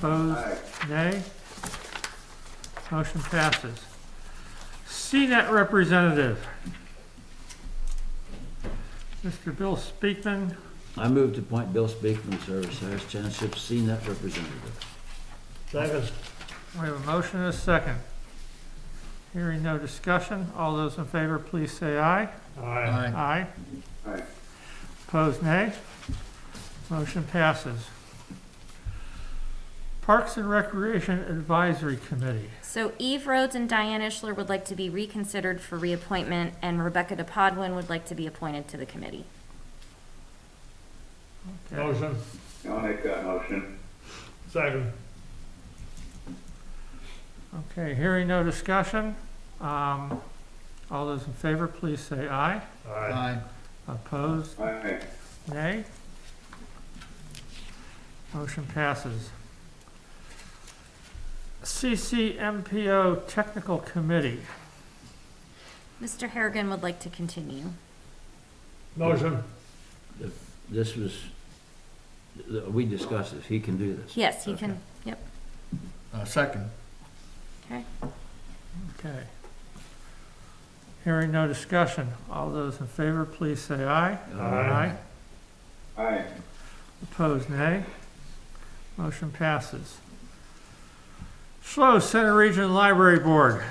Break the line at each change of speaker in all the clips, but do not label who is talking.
Opposed? Nay? Motion passes. CNET representative. Mr. Bill Speakman,
I move to appoint Bill Speakman to serve as Harris Township CNET E representative.
Second.
we have a motion and a second. Hearing no discussion, all those in favor, please say aye.
Aye.
Aye. Opposed, nay? Motion passes. Parks and Recreation Advisory Committee.
So Eve Rhodes and Diane Ishler would like to be reconsidered for reappointment, and Rebecca DePodwin would like to be appointed to the committee.
Okay.
Motion.
I'll make that motion.
Second.
Okay, hearing no discussion, um, all those in favor, please say aye.
Aye.
Opposed,
Aye.
nay? Motion passes. CCMPO Technical Committee.
Mr. Harrigan would like to continue.
Motion.
This was, th- we discussed this, he can do this.
Yes, he can, yep,
Uh, Second.
okay.
Okay. Hearing no discussion, all those in favor, please say aye.
Aye.
Aye.
Opposed, nay. Motion passes. Schloss Center Region Library Board.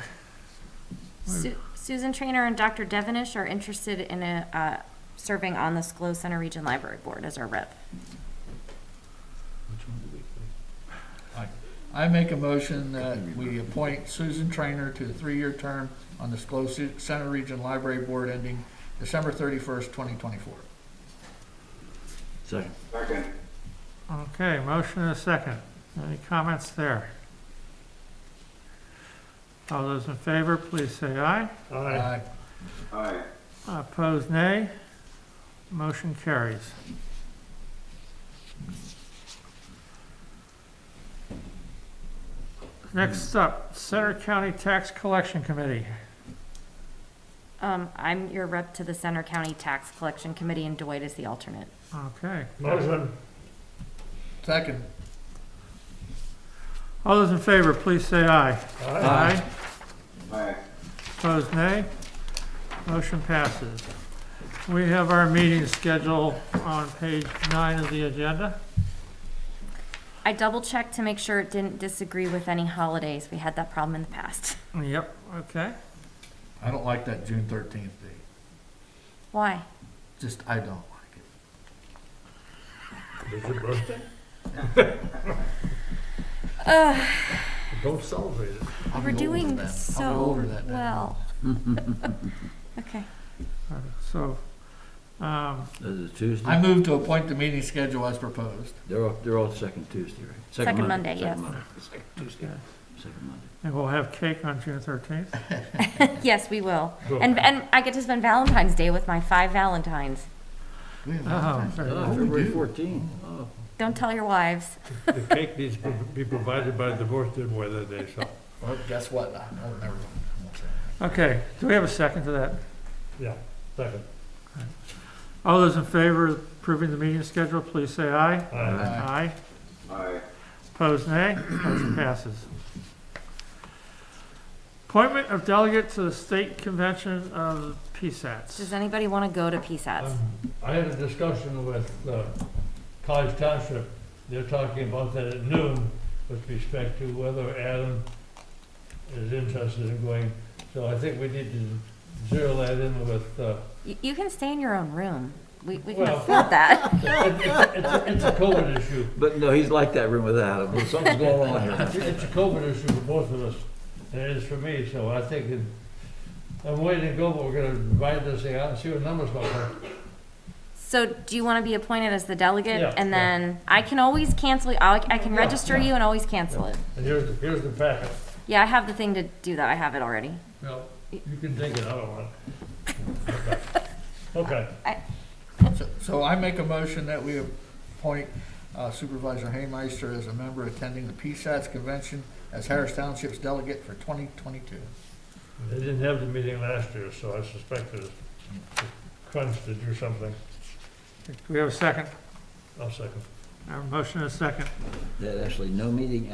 Su- Susan Trainer and Dr. Devenish are interested in a, uh, serving on the SCLO Center Region Library Board as our rep.
Which one do we pick?
I make a motion that we appoint Susan Trainer to a three-year term on the SCLO Center Region Library Board ending December thirty-first, twenty twenty-four.
Second.
Second.
Okay, motion and a second. Any comments there? All those in favor, please say aye.
Aye.
Aye.
Opposed, nay. Motion carries. Next up, Center County Tax Collection Committee.
Um, I'm your rep to the Center County Tax Collection Committee, and Dwight is the alternate.
Okay.
Motion.
Second.
All those in favor, please say aye. Aye.
Aye.
Opposed, nay. Motion passes. We have our meeting schedule on page nine of the agenda.
I double-checked to make sure it didn't disagree with any holidays. We had that problem in the past.
Yep, okay.
I don't like that June thirteenth date.
Why?
Just, I don't like it.
Is your birthday? Don't celebrate it.
Uh,
I'm
We're
older
doing
than- I'm
so
older than that.
well. Okay.
All right, So, um,
Is it Uh, Tuesday?
I move to appoint the meeting schedule as proposed.
They're all, they're all second Tuesday, right?
Second Monday, yes.
Second Monday. Second Tuesday. Second Monday.
and we'll have cake on June thirteenth.
Yes, we will. And, and I get to spend Valentine's Day with my five Valentines.
We have
Oh,
Uh-huh.
Valentine's Day.
very
Oh,
good.
February fourteenth. Oh,
Don't tell your wives.
The cake needs to be provided by the North End Weather Day, so.
Well, guess what? I- Oh, never mind. I won't say it.
Okay, do we have a second to that?
Yeah, second.
All those in favor of approving the meeting schedule, please say aye.
Aye.
Aye.
Aye.
Aye.
Opposed, nay. Motion passes. Appointment of delegate to the State Convention of
Does
PSATs.
anybody want to go to PSATs?
Um, I had a discussion with uh, College Township, they're talking about that at noon with respect to whether Adam is interested in going. So I think we need to zero that in with, uh,
You, you can stay in your own room. We, we can
Well-
afford that.
it- it- it's a- it's a COVID issue.
But no, he's like that room without him. Something's going on here.
It's it's a COVID issue for both of us, and it is for me, so I think, it- I'm waiting to go, but we're gonna divide this thing out and see what numbers look like.
So do you want to be appointed as the delegate?
Yeah,
and
yeah.
then I can always cancel. I'll, I can
Yeah,
register
yeah.
you and always cancel it.
And here's, the- here's the packet.
Yeah, I have the thing to do that. I have it already.
No, you can take it, I don't want it. Okay,
So- So I make a motion that we appoint uh, Supervisor Haymeister as a member attending the PSATS convention as Harris Township's delegate for 2022.
they didn't have the meeting last year, so I suspect there's a crunch to do something.
Do we have a second?
I'll second.
I have a motion and a second.
That actually, no meeting